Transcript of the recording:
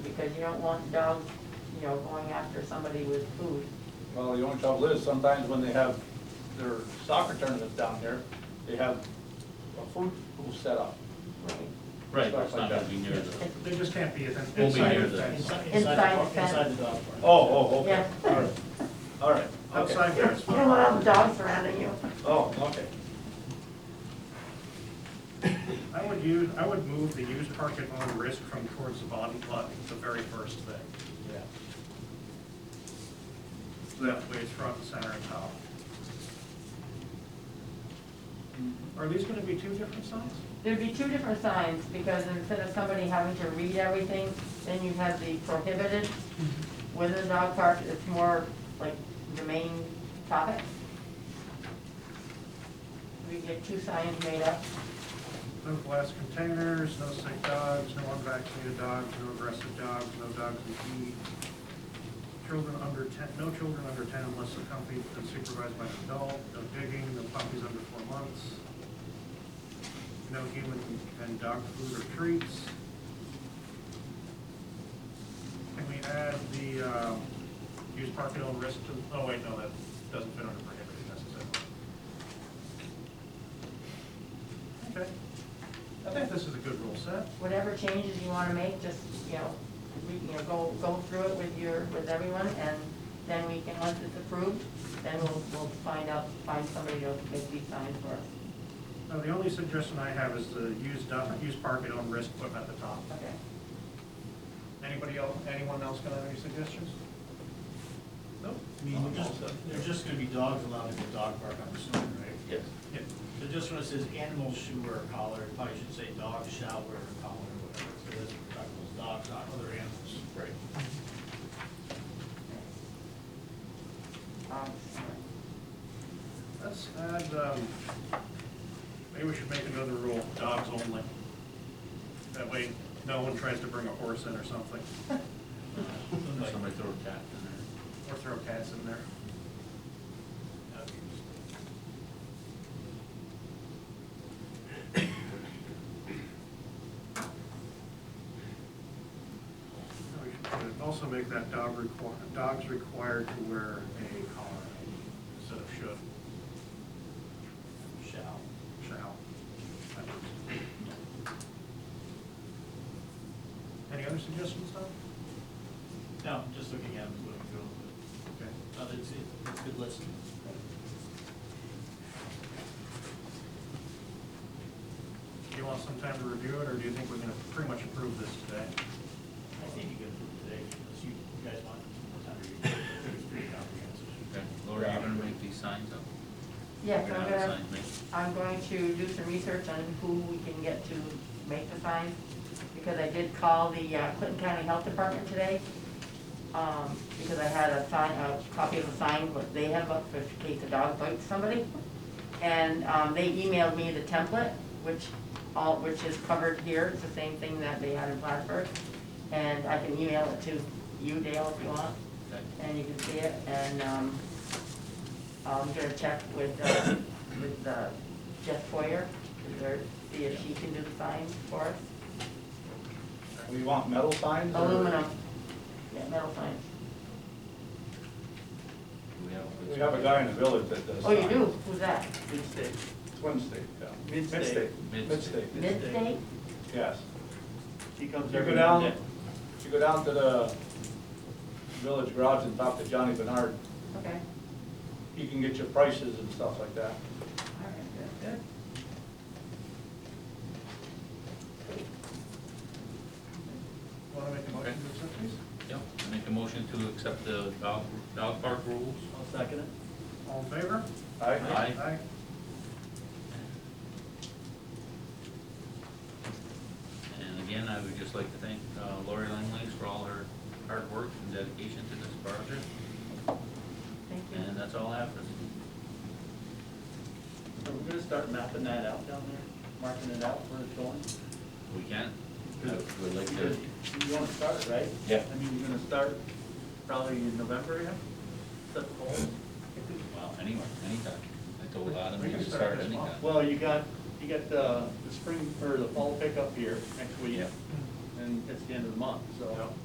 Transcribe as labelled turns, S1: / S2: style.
S1: because you don't want dogs, you know, going after somebody with food.
S2: Well, the only trouble is sometimes when they have their soccer tournaments down here, they have a food pool set up.
S3: Right, but it's not gonna be near the,
S4: They just can't be inside,
S3: Won't be
S4: inside,
S3: near
S4: the-
S3: the-
S4: inside,
S1: Inside the
S4: the-
S1: fence.
S4: inside the dog park.
S2: Oh, oh, okay,
S1: Yeah.
S2: all right, all right, okay.
S4: Outside there is
S1: You don't want all the
S4: fine.
S1: dogs surrounding you.
S2: Oh, okay.
S4: I would use, I would move the used park at own risk from towards the bottom lot, the very first thing.
S2: Yeah.
S4: So that way it's front and center and top. Are these gonna be two different signs?
S1: There'd be two different signs, because instead of somebody having to read everything, then you have the prohibited within the dog park, it's more like the main topic. We get two signs made up.
S4: No glass containers, no sick dogs, no unvaccinated dogs, no aggressive dogs, no dogs that eat. Children under ten, no children under ten unless accompanied and supervised by an adult, no digging, no puppies under four months. No human and dog food or treats. Can we add the, um, use park at own risk to, oh wait, no, that doesn't fit under prohibited necessarily. Okay. I think this is a good rule set.
S1: Whatever changes you wanna make, just, you know, we, you know, go, go through it with your, with everyone, and then we can, once it's approved, then we'll, we'll find out, find somebody to make these signs for us.
S4: Now, the only suggestion I have is the use, dump- use park at own risk, put them at the top.
S1: Okay.
S4: Anybody else, anyone else got any suggestions? Nope?
S5: I mean, they're just, they're just gonna be dogs allowed in the dog park, I'm assuming, right?
S2: Yes.
S4: Yeah.
S5: So just when it says animals should wear a collar, it probably should say dogs shall wear a collar or whatever, so that's what we're talking about, dogs, not other animals. Right.
S1: Um,
S4: Let's add, um, maybe we should make another rule, dogs only. That way, no one tries to bring a horse in or something,
S5: Somebody-
S3: somebody throw a cat in
S4: or throw cats in there.
S5: that'd be interesting.
S4: We should Also make that dog require, dogs required to wear a collar instead of should.
S5: Shall.
S4: shall. Any other suggestions, Tom?
S5: No, I'm just looking at them, looking through them,
S4: Okay.
S5: but, no, it's, it's good listening.
S4: Do you want some time to review it, or do you think we're gonna pretty much approve this today?
S5: I think you can do it today, unless you you guys want more time to read it, I think it's pretty comprehensive.
S3: there. Okay, Laura, you gonna make these signs up?
S1: Yes,
S3: You're
S1: I'm
S3: have
S1: gonna,
S3: signs made?
S1: I'm going to do some research on who we can get to make the signs, because I did call the uh, Clinton County Health Department today, um, because I had a sign, a copy of a sign, what they have up for in case a dog bites somebody. And, um, they emailed me the template, which all, which is covered here, it's the same thing that they had in Plattsburgh. And I can email it to you, Dale, if you want.
S3: Okay.
S1: and you can see it, and, um, I'm gonna check with, uh, with, uh, Jeff Foyer, is there, see if she can do the signs for us.
S2: We want metal signs or?
S1: Aluminum, yeah, metal signs.
S3: Do we have?
S2: We have a guy in the village that does.
S1: Oh, you
S2: signs.
S1: do, who's that?
S5: Mid-state.
S2: Twin State, yeah.
S5: Mid-state.
S3: Mid-state.
S2: Mid-state,
S1: Midstate?
S2: yes.
S5: He comes
S2: You
S5: every
S2: go down,
S5: Monday.
S2: you go down to the village garage and talk to Johnny Bernard,
S1: Okay,
S2: he can get you prices and stuff like that.
S1: all right, good, good.
S4: Want to make a motion to accept these?
S3: Yeah, I make a motion to accept the dog, dog park rules.
S5: I'll second it.
S4: All in favor?
S2: All right?
S3: Aye.
S4: Aye.
S3: And again, I would just like to thank uh, Lori Langley for all her hard work and dedication to this project.
S1: thank you.
S3: And that's all I have for this.
S5: So we're gonna start mapping that out down there, marking it out where it's going.
S3: We can?
S5: Good.
S3: We'd like
S5: Because
S3: to.
S5: You wanna start, right?
S3: Yeah.
S5: I mean, you're gonna start probably in November, yeah? Set the goals.
S3: Well, anywhere, anytime. I told Adam
S4: We
S3: he
S4: can
S3: could
S4: start
S3: start
S4: this
S3: anytime.
S4: month.
S6: Well, you got, you got the, the spring, or the fall pickup here next week,
S3: Yeah.
S6: and it's the end of the month, so.